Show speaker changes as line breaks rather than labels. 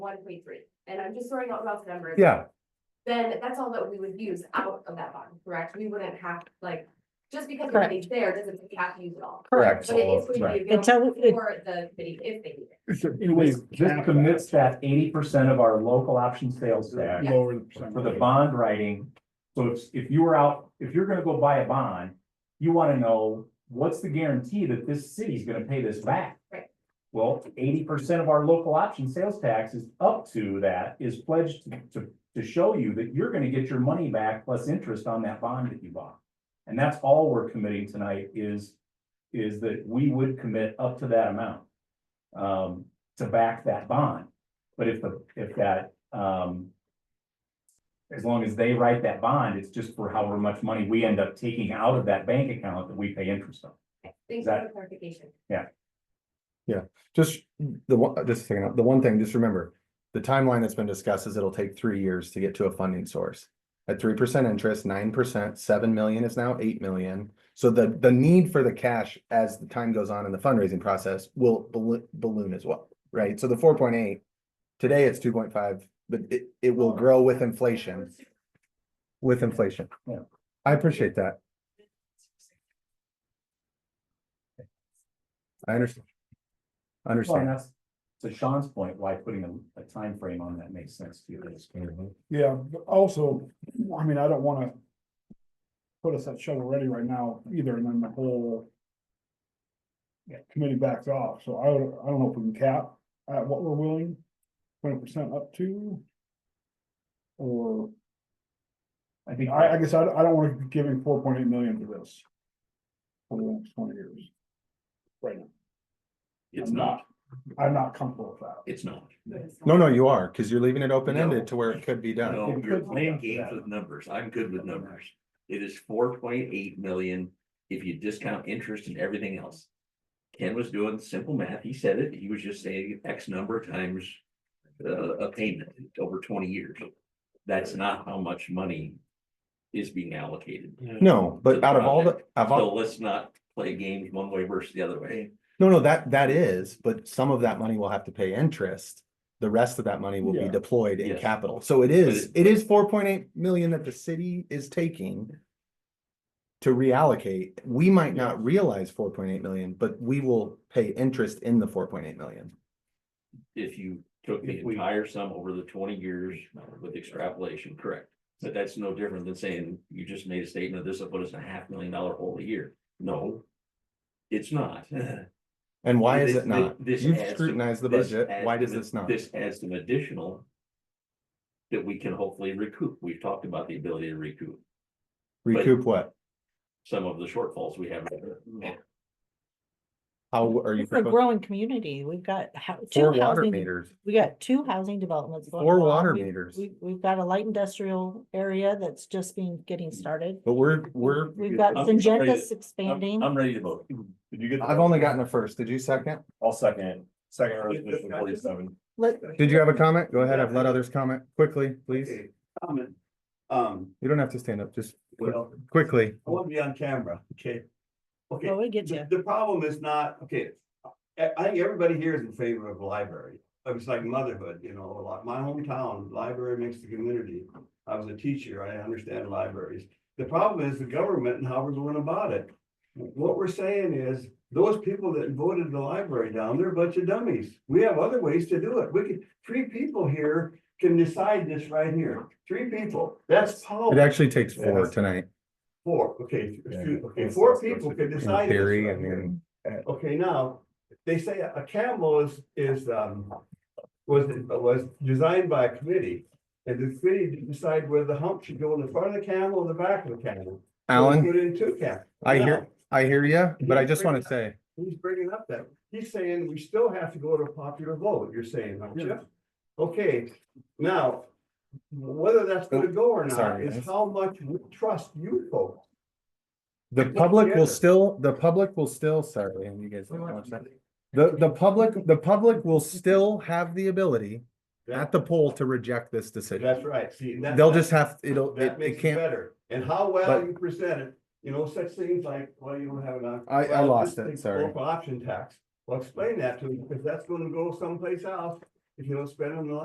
one point three, and I'm just throwing out rough numbers.
Yeah,
Then that's all that we would use out of that bond, correct? We wouldn't have, like, just because the
Correct.
money's there, doesn't mean we have to use it all.
correct.
But it is going to
Right.
be available
Until it-
for the committee if they need it.
This this commits that eighty percent of our local option sales tax
Lower
for the bond writing. So if, if you were out, if you're gonna go buy a bond, you wanna know, what's the guarantee that this city's gonna pay this back?
Right.
Well, eighty percent of our local option sales tax is up to that, is pledged to, to, to show you that you're gonna get your money back plus interest on that bond that you bought. And that's all we're committing tonight is, is that we would commit up to that amount. Um, to back that bond. But if the, if that, um. As long as they write that bond, it's just for however much money we end up taking out of that bank account that we pay interest on.
Thanks for the clarification.
Just the one, uh, just a second, the one thing, just remember, the timeline that's been discussed is it'll take three years to get to a funding source. At three percent interest, nine percent, seven million is now eight million. So the, the need for the cash as the time goes on in the fundraising process will balloon, balloon as well, right? So the four point eight, today it's two point five, but it, it will grow with inflation, with inflation.
Yeah.
I appreciate that. I understand.
Well, and
Understand.
that's, to Sean's point, why putting a, a timeframe on that makes sense to you.
Yeah, but also, I mean, I don't wanna. Put us at shovel ready right now either, and then the whole. Committee backs off, so I don't, I don't know if we can cap at what we're willing, twenty percent up to. Or,
I think,
I, I guess I, don't- I don't wanna be giving four point eight million to this. For the next twenty years. Right now. I'm I'm not comfortable with that.
It's not.
No, no, you are, because you're leaving it open
No.
ended to where it could be done.
No,
It
you're
could be
playing
up to
games
that.
with numbers. I'm good with numbers. It is four point eight million if you discount interest and everything else. Ken was doing simple math. He said it. He was just saying X number of times uh, a payment over twenty years. That's not how much money is being allocated.
No, but out of all the, of all,
So let's not play games one way versus the other way.
no, no, that, that is, but some of that money will have to pay interest. The rest of that money will be
Yeah.
deployed in
Yes.
capital. So it is, it is four point eight million that the city is taking to reallocate. We might not realize four point eight million, but we will pay interest in the four point eight million.
If you took the
If we-
entire sum over the twenty years uh, with extrapolation, correct? But that's no different than saying you just made a statement, this will put us in a half million dollar hole a year. No. It's not.
And why is
This-
it not?
this
You've
adds to-
scrutinized the
this
budget.
adds
Why
to
does
the-
this not?
This adds an additional. That we can hopefully recoup. We've talked about the ability to recoup
Recoup what?
some of the shortfalls we have.
How are you?
It's a
proposing-
growing community. We've got hou-
Four water
two housing,
meters.
we got two housing developments. going
Four
on.
water
We-
meters.
We, we've got a light industrial area that's just being, getting started.
But we're, we're,
We've got
I'm-
Syngenta's
I'm
expanding.
I'm ready to vote.
Did you get?
I've only gotten a first. Did you second?
I'll second. Second resolution
forty-seven.
Let,
Did you have a comment? Go ahead. I've let others comment quickly, please.
Okay, Comment. Um,
You don't have to stand up, just quick-
well,
quickly.
I want to be on camera, okay? Okay,
well, we get
the,
you.
the problem is not, okay, I, I think everybody here is in favor of library. It's like motherhood, you know, a lot. My hometown, library makes the community. I was a teacher, I understand libraries. The problem is the government and how we're going about it. What we're saying is, those people that voted the library down, they're a bunch of dummies. We have other ways to do it. We could, three people here can decide this right here. Three people, that's
It
power.
actually takes four tonight
Four, okay,
Yeah.
two- okay, four people could
in
decide. this
theory
right
and
here.
then
Okay, now, they say a camel is, is, um, was, was designed by a committee. And the committee decide whether the hump should go in the front of the camel or the back of the camel. So they
Alan,
Put in two camels.
I hear,
Now,
I hear you, but I just want to say,
He's bringing up that, he's saying we still have to go to a popular vote, you're saying, aren't you? Okay, now, whether that's gonna go or not
Sorry,
is
guys.
how much we trust you folks.
the public will still, the public will still, sorry, and you guys. don't watch that. The, the public, the public will still have the ability at the poll to reject this decision.
That's right, see. and that-
They'll just have, it'll, it
That
it
makes it
can't,
better. And how well
but-
you present it, you know, such things like, well, you don't have enough.
I- I
well,
lost
this
it,
thing's
sorry.
Local option tax. Well, explain that to them because that's gonna go someplace else if you don't spend it on the